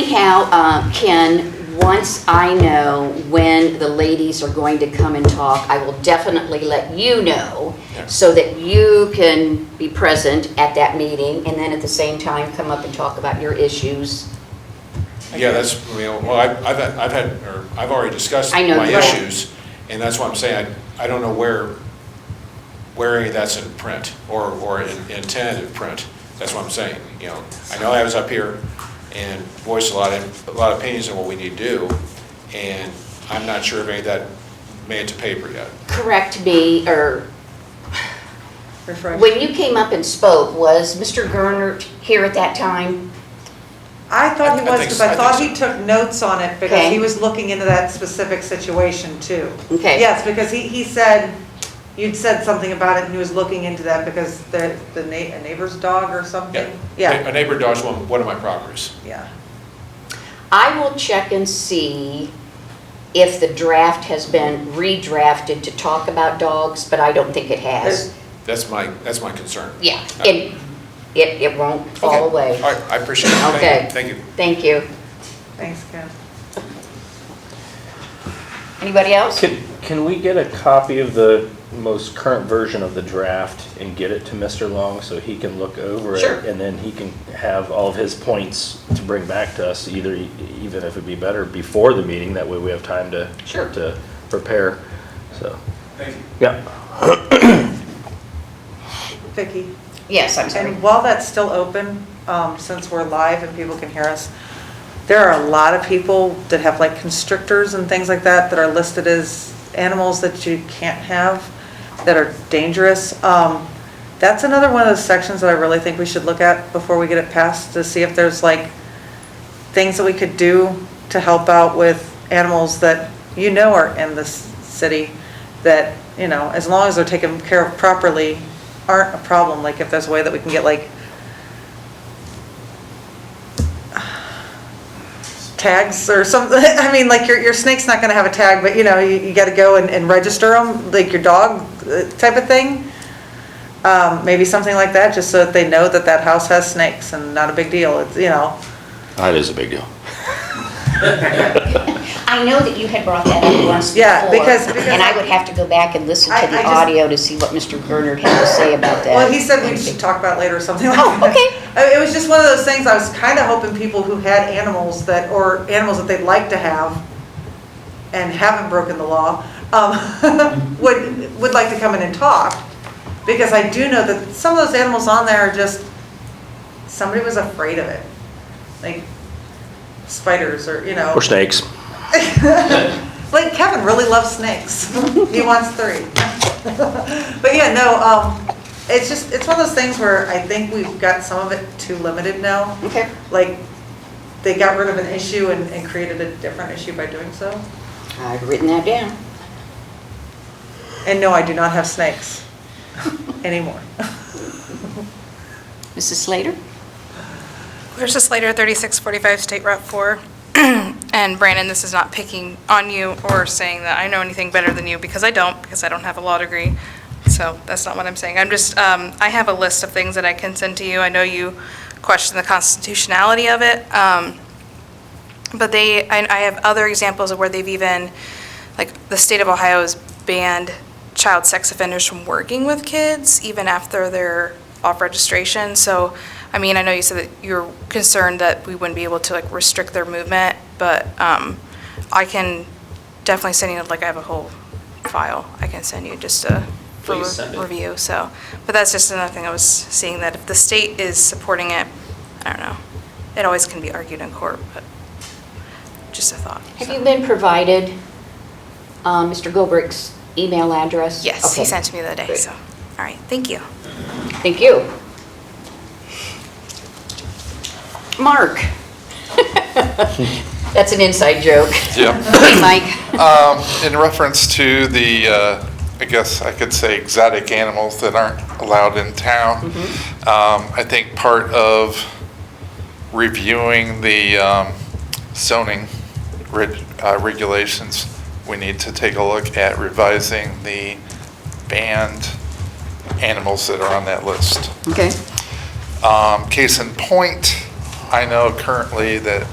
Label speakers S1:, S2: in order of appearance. S1: Anyhow, uh, Ken, once I know when the ladies are going to come and talk, I will definitely let you know
S2: Yeah.
S1: so that you can be present at that meeting and then at the same time come up and talk about your issues.
S2: Yeah, that's, you know, well, I- I've, had- I've had, or I've already discussed
S1: I know,
S2: my
S1: right.
S2: issues, and that's why I'm saying, I, I don't know where, where any of that's in print, or, or in in tentative print, that's what I'm saying, you know. I know I was up here and voiced a lot of, a lot of opinions on what we need to do, and I'm not sure if any of that made it to paper yet.
S1: Correct me, or
S3: Refresh.
S1: when you came up and spoke, was Mr. Gernert here at that time?
S3: I thought he
S2: I- I think
S3: was, because
S2: so-
S3: I
S2: I
S3: thought
S2: think
S3: he took notes on it, because
S1: Okay.
S3: he was looking into that specific situation too.
S1: Okay.
S3: Yes, because he, he said, you'd said something about it, and he was looking into that because the, the na- a neighbor's dog or something?
S2: A neighbor dodged one, one of my properties.
S3: Yeah.
S1: I will check and see if the draft has been redrafted to talk about dogs, but I don't think it has.
S2: That's my, that's my concern.
S1: Yeah, it, it, it won't fall
S2: Okay.
S1: away.
S2: All right, I appreciate it. Thank you.
S1: Okay.
S2: Thank you.
S1: Thank you.
S3: Thanks, Ken.
S1: Anybody else?
S4: Can, can we get a copy of the most current version of the draft and get it to Mr. Long so he can look over it?
S1: Sure.
S4: And then he can have all of his points to bring back to us, either, e, even if it'd be better before the meeting, that way we have time to.
S1: Sure.
S4: To prepare, so,
S2: Thank you.
S4: yeah.
S3: Vicki?
S1: Yes, I'm sorry.
S3: And while that's still open, um, since we're live and people can hear us, there are a lot of people that have like constrictors and things like that that are listed as animals that you can't have, that are dangerous. Um, That's another one of those sections that I really think we should look at before we get it passed, to see if there's like things that we could do to help out with animals that you know are in this city, that, you know, as long as they're taken care of properly, aren't a problem, like if there's a way that we can get like tags or something, I mean, like your, your snake's not gonna have a tag, but you know, you, you gotta go and, and register them, like your dog uh, type of thing. Um, maybe something like that, just so that they know that that house has snakes and not a big deal, it's, you know.
S4: That is a big deal.
S1: I know that you had brought that up once before.
S3: Yeah, because- because
S1: And I
S3: I-
S1: would have to go back and listen
S3: I-
S1: to
S3: I
S1: the
S3: just-
S1: audio to see what Mr. Gernert had to say about that.
S3: Well, he said we should talk about it later or something like
S1: Oh,
S3: that.
S1: okay.
S3: I- It was just one of those things, I was kind of hoping people who had animals that, or animals that they'd like to have and haven't broken the law, um, would, would like to come in and talk. Because I do know that some of those animals on there are just, somebody was afraid of it. Like spiders or, you know.
S4: Or snakes.
S3: Like Kevin really loves snakes. He wants three. But yeah, no, um, it's just, it's one of those things where I think we've got some of it too limited now.
S1: Okay.
S3: Like, they got rid of an issue and, and created a different issue by doing so.
S1: I've written that down.
S3: And no, I do not have snakes anymore.
S1: Mrs. Slater?
S5: Clarissa Slater, 3645 State Route 4. And Brandon, this is not picking on you or saying that I know anything better than you, because I don't, because I don't have a law degree. So that's not what I'm saying. I'm just, um, I have a list of things that I can send to you. I know you question the constitutionality of it. um, But they, I I have other examples of where they've even, like, the state of Ohio has banned child sex offenders from working with kids, even after they're off registration. So, I mean, I know you said that you're concerned that we wouldn't be able to, like, restrict their movement, but um, I can definitely send you, like, I have a whole file I can send you just to, for
S4: Please send it.
S5: review, so. But that's just another thing I was seeing, that if the state is supporting it, I don't know. It always can be argued in court, but just a thought.
S1: Have
S5: so.
S1: you been provided, uh, Mr. Gilbert's email address?
S5: Yes, he
S1: Okay.
S5: sent to me the other day,
S1: Great.
S5: so, all right, thank you.
S1: Thank you. Mark? That's an inside joke.
S6: Yeah.
S1: Hey, Mike.
S6: Um, In reference to the, uh, I guess I could say exotic animals that aren't allowed in town, um, I think part of reviewing the um, zoning reg- uh, regulations, we need to take a look at revising the banned animals that are on that list.
S1: Okay.
S6: Um, Case in point, I know currently that